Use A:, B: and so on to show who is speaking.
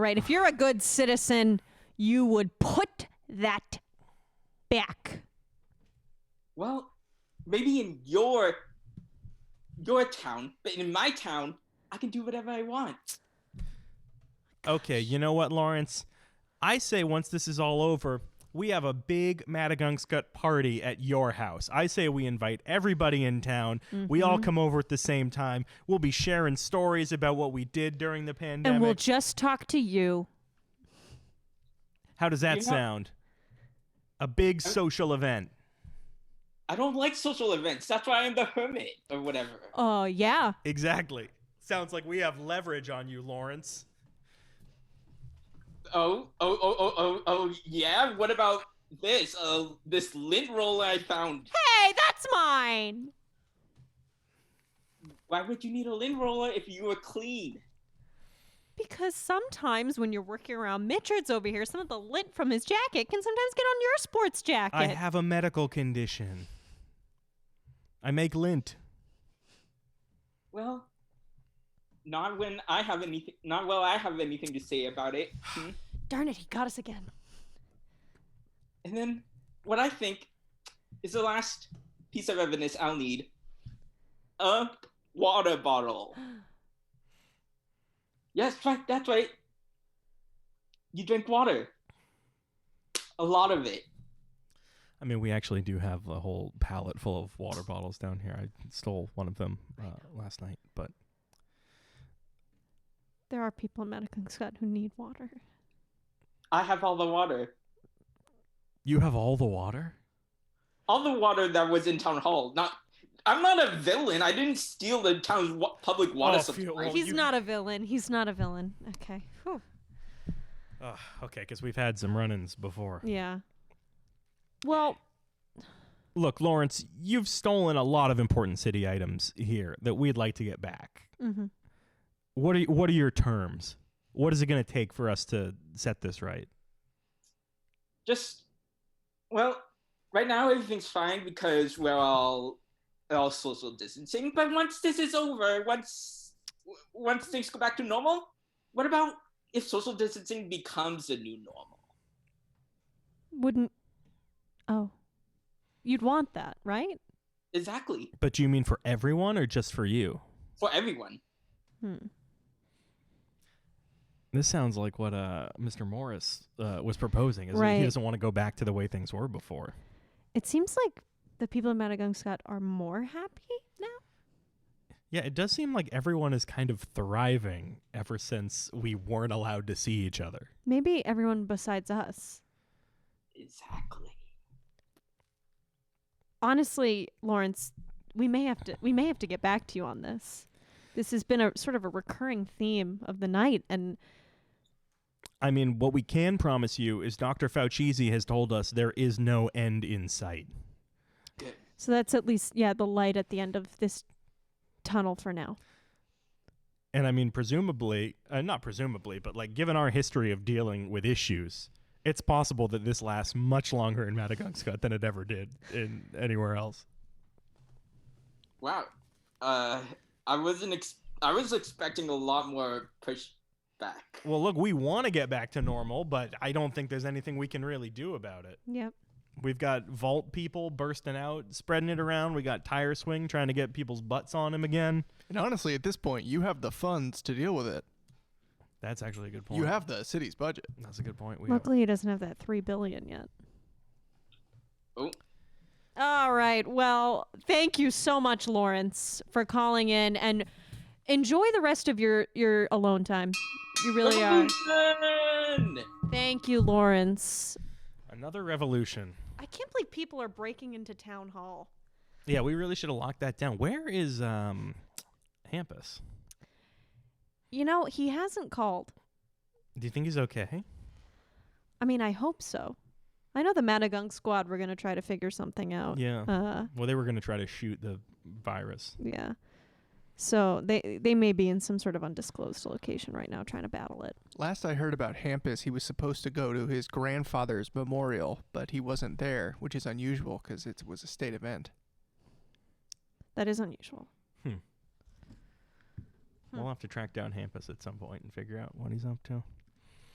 A: right? If you're a good citizen, you would put that back.
B: Well, maybe in your your town, but in my town, I can do whatever I want.
C: Okay, you know what, Lawrence? I say once this is all over, we have a big Madagungscut party at your house. I say we invite everybody in town. We
A: Mm-hmm.
C: all come over at the same time. We'll be sharing stories about what we did during the pandemic.
A: And we'll just talk to you.
C: How does that
B: You know-
C: sound? A big social event.
B: I don't like social events. That's why I'm the hermit or whatever.
A: Oh, yeah.
C: Exactly. Sounds like we have leverage on you, Lawrence.
B: Oh, oh, oh, oh, oh, oh, yeah. What about this? Uh, this lint roll I found.
A: Hey, that's mine.
B: Why would you need a lint roller if you were clean?
A: Because sometimes when you're working around Mitchard's over here, some of the lint from his jacket can sometimes get on your sports jacket.
C: I have a medical condition. I make lint.
B: Well, not when I have anything. Not while I have anything to say about it. Hmm?
A: Darn it, he got us again.
B: And then, what I think is the last piece of evidence I'll need: a water bottle. Yes, right. That's right. You drink water. A lot of it.
C: I mean, we actually do have a whole pallet full of water bottles down here. I stole one of them uh, last night, but
A: There are people in Madison Scott who need water.
B: I have all the water.
C: you have all the water.
B: All the water that was in town hall. Not. I'm not a villain. I didn't steal the town's wa- public water
C: Oh,
B: supply.
C: phew, well,
A: He's
C: you-
A: not a villain. He's not a villain. Okay. Whew.
C: Ugh, okay, because we've had some run-ins before.
A: Yeah. Well,
C: Look, Lawrence, you've stolen a lot of important city items here that we'd like to get back.
A: mhm.
C: What are y- what are your terms? What is it going to take for us to set this right?
B: just well right now everything's fine because we're all all social distancing but once this is over once w- once things go back to normal what about if social distancing becomes the new normal
A: wouldn't. Oh. You'd want that, right?
B: exactly
C: But do you mean for everyone or just for you?
B: for everyone
A: Hmm.
C: This sounds like what uh, Mr. Morris uh, was proposing. Is
A: Right.
C: He doesn't want to go back to the way things were before.
A: It seems like the people in Madagungscut are more happy now.
C: Yeah, it does seem like everyone is kind of thriving ever since we weren't allowed to see each other.
A: Maybe everyone besides us.
B: exactly
A: honestly, Lawrence, we may have to we may have to get back to you on this. This has been a sort of a recurring theme of the night, and
C: I mean, what we can promise you is Dr. Fauci has told us there is no end in sight.
B: Good.
A: so that's at least yeah the light at the end of this tunnel for now.
C: And I mean, presumably, uh, not presumably, but like given our history of dealing with issues, it's possible that this lasts much longer in Madagungscut than it ever did in anywhere else.
B: wow uh i wasn't ex- i was expecting a lot more pushback
C: Well, look, we want to get back to normal, but I don't think there's anything we can really do about it.
A: Yep.
C: We've got vault people bursting out, spreading it around. We got tire swing trying to get people's butts on him again.
D: And honestly, at this point, you have the funds to deal with it.
C: That's actually a good point.
D: You have the city's budget.
C: That's a good point. We
A: Luckily, he doesn't have that three billion yet.
B: oh
A: All right. Well, thank you so much, Lawrence, for calling in, and enjoy the rest of your your alone time. You really are.
B: Revolution!
A: Thank you, Lawrence.
C: another revolution.
A: I can't believe people are breaking into town hall.
C: Yeah, we really should have locked that down. Where is um, Hampus?
A: You know, he hasn't called.
C: Do you think he's okay?
A: I mean, I hope so. I know the Madagung squad were going to try to figure something out.
C: Yeah.
A: Uh,
C: Well, they were going to try to shoot the virus.
A: yeah. So they they may be in some sort of undisclosed location right now trying to battle it.
D: Last I heard about Hampus, he was supposed to go to his grandfather's memorial, but he wasn't there, which is unusual because it was a state event.
A: That is unusual.
C: We'll have to track down Hampus at some point and figure out what he's up to.